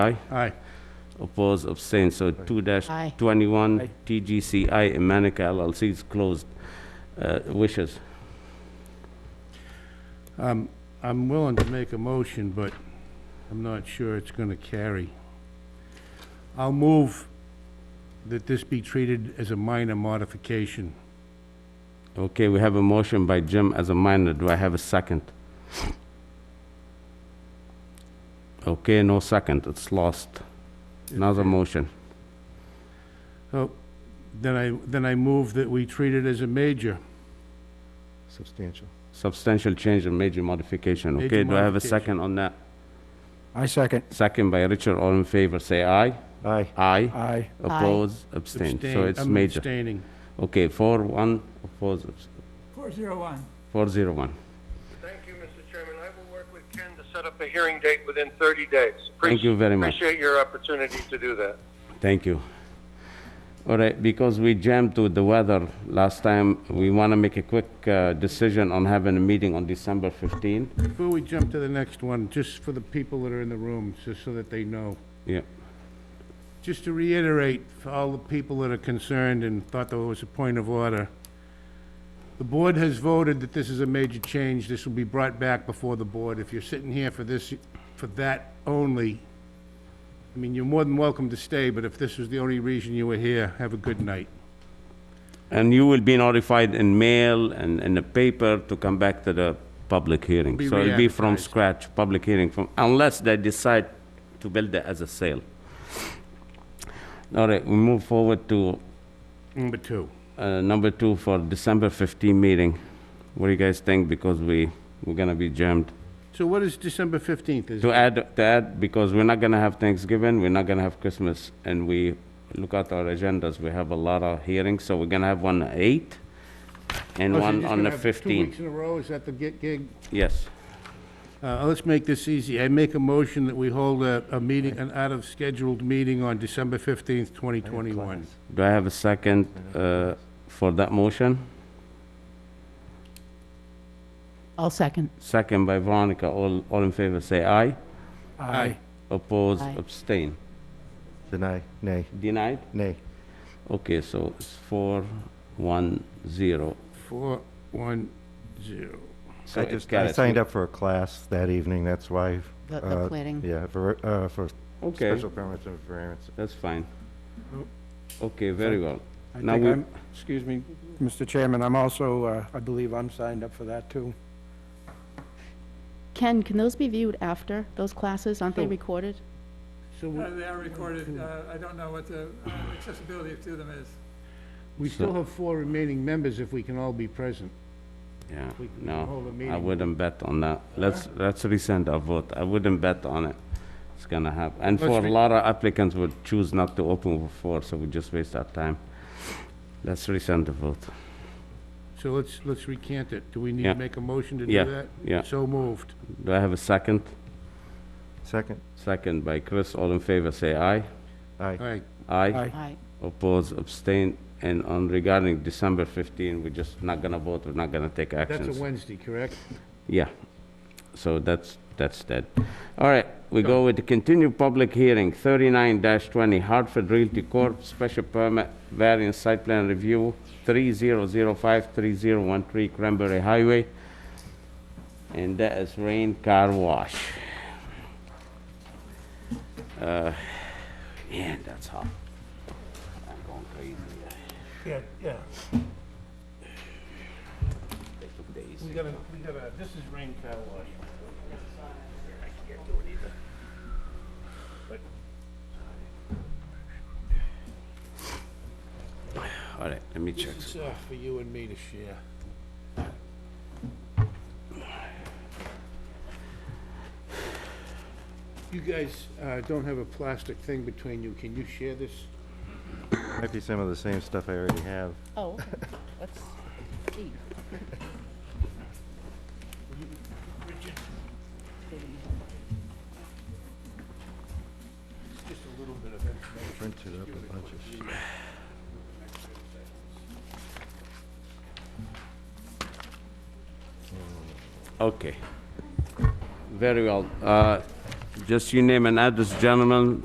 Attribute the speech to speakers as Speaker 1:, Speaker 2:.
Speaker 1: Aye.
Speaker 2: Aye.
Speaker 1: Oppose, abstain, so two dash
Speaker 3: Aye.
Speaker 1: twenty-one, TGCI Manica LLC is closed. Uh, Wishes?
Speaker 2: Um, I'm willing to make a motion, but I'm not sure it's gonna carry. I'll move that this be treated as a minor modification.
Speaker 1: Okay, we have a motion by Jim as a minor, do I have a second? Okay, no second, it's lost. Another motion.
Speaker 2: So, Oh, then I, then I move that we treat it as a major.
Speaker 4: Substantial.
Speaker 1: Substantial change and major modification,
Speaker 2: Major
Speaker 1: okay, do I have a
Speaker 2: modification.
Speaker 1: second on that?
Speaker 4: I second.
Speaker 1: Second by Richard, all in favor, say aye.
Speaker 4: Aye.
Speaker 1: Aye.
Speaker 4: Aye.
Speaker 1: Oppose, abstain, so
Speaker 2: Abstain.
Speaker 1: it's
Speaker 2: I'm
Speaker 1: major.
Speaker 2: abstaining.
Speaker 1: Okay, four, one, oppose, abs-
Speaker 5: 401.
Speaker 1: four, zero, one.
Speaker 6: Thank you, Mr. Chairman. I will work with Ken to set up a hearing date within 30 days.
Speaker 1: Thank you very much.
Speaker 6: Appreciate your opportunity to do that.
Speaker 1: Thank you. All right, because we jammed with the weather last time, we want to make a quick uh, decision on having a meeting on December 15.
Speaker 2: Before we jump to the next one, just for the people that are in the room, just so that they know.
Speaker 1: Yeah,
Speaker 2: Just to reiterate, for all the people that are concerned and thought there was a point of order, the board has voted that this is a major change. This will be brought back before the board. If you're sitting here for this, for that only, I mean, you're more than welcome to stay, but if this was the only reason you were here, have a good night.
Speaker 1: and you will be notified in mail and in the paper to come back to the public hearing.
Speaker 2: Be
Speaker 1: So it'll be from
Speaker 2: re-advertised.
Speaker 1: scratch, public hearing from, unless they decide to build it as a sale. All right, we move forward to
Speaker 2: Number two.
Speaker 1: uh, number two for December 15 meeting. What do you guys think? Because we, we're gonna be jammed.
Speaker 2: So what is December 15th? Is
Speaker 1: To add, to add, because we're not gonna have Thanksgiving, we're not gonna have Christmas, and we, look at our agendas, we have a lot of hearings, so we're gonna have one on eight and
Speaker 2: Oh, so you're
Speaker 1: one
Speaker 2: just
Speaker 1: on the
Speaker 2: gonna have Two weeks
Speaker 1: fifteenth.
Speaker 2: in a row, is that the gi- gig?
Speaker 1: Yes.
Speaker 2: Uh, Let's make this easy. I make a motion that we hold a, a meeting, an out-of-scheduled meeting on December 15th, 2021.
Speaker 1: Do I have a second, uh, for that motion?
Speaker 3: I'll second.
Speaker 1: Second by Veronica, all, all in favor, say aye.
Speaker 2: Aye.
Speaker 1: Oppose,
Speaker 3: Aye.
Speaker 1: abstain.
Speaker 4: Deny, nay,
Speaker 1: Denied?
Speaker 4: nay.
Speaker 1: Okay, so it's four, one, zero.
Speaker 2: Four, one, zero.
Speaker 1: So
Speaker 4: I
Speaker 1: it
Speaker 4: just, I
Speaker 1: carries.
Speaker 4: signed up for a class that evening, that's why.
Speaker 3: The- the
Speaker 4: uh,
Speaker 3: planning.
Speaker 4: Yeah, for, uh, for
Speaker 1: Okay,
Speaker 4: special permits and variance.
Speaker 1: that's fine. Okay, very well.
Speaker 7: I
Speaker 1: Now
Speaker 7: think
Speaker 1: we-
Speaker 7: I'm, excuse me, Mr. Chairman, I'm also, uh, I believe I'm signed up for that, too.
Speaker 3: Ken, can those be viewed after those classes? Aren't they
Speaker 4: Oh.
Speaker 2: So-
Speaker 3: recorded?
Speaker 2: So
Speaker 5: Uh,
Speaker 2: we-
Speaker 5: They are recorded. Uh, I don't know what the uh, accessibility to them is.
Speaker 2: we
Speaker 1: So-
Speaker 2: still have four remaining members if we can all be present.
Speaker 1: Yeah,
Speaker 2: We can hold a
Speaker 1: no, I
Speaker 2: meeting.
Speaker 1: wouldn't bet on that. Let's, let's resend our vote. I wouldn't bet on it. It's gonna happen. And
Speaker 2: Let's
Speaker 1: for a
Speaker 2: re-
Speaker 1: lot of applicants would choose not to open before, so we just waste our time. Let's resend the vote.
Speaker 2: So let's, let's recant it. Do we need
Speaker 1: Yeah.
Speaker 2: to make a motion to do
Speaker 1: Yeah,
Speaker 2: that?
Speaker 1: yeah.
Speaker 2: So moved.
Speaker 1: Do I have a second?
Speaker 4: Second,
Speaker 1: Second by Chris. All in favor, say aye.
Speaker 2: All
Speaker 4: aye.
Speaker 2: right,
Speaker 1: Aye.
Speaker 7: Aye.
Speaker 3: Aye.
Speaker 1: Oppose, abstain. And on regarding December 15, we're just not gonna vote. We're not gonna take
Speaker 2: that's a
Speaker 1: actions.
Speaker 2: Wednesday, correct?
Speaker 1: Yeah, so that's, that's that. All right, we go with the continued public hearing, 39-20 Hartford Realty Corp., special permit, variance site plan review, 3005-3013 Cranberry Highway, and that is Rain Car Wash. Uh, Man, that's hot. I'm going crazy. uh,
Speaker 2: Yeah, yeah.
Speaker 1: They took the easy.
Speaker 2: We gotta, we gotta, this is rain car wash.
Speaker 1: All right, let me check.
Speaker 2: It's uh, for you and me to share. You guys uh, don't have a plastic thing between you. Can you share this?
Speaker 4: Might be some of the same stuff I already have.
Speaker 3: Oh, okay. let's see.
Speaker 2: Just a little bit of information.
Speaker 4: Printed up a bunch of shit.
Speaker 1: Okay. Very well. Uh, Just you name an address, gentlemen,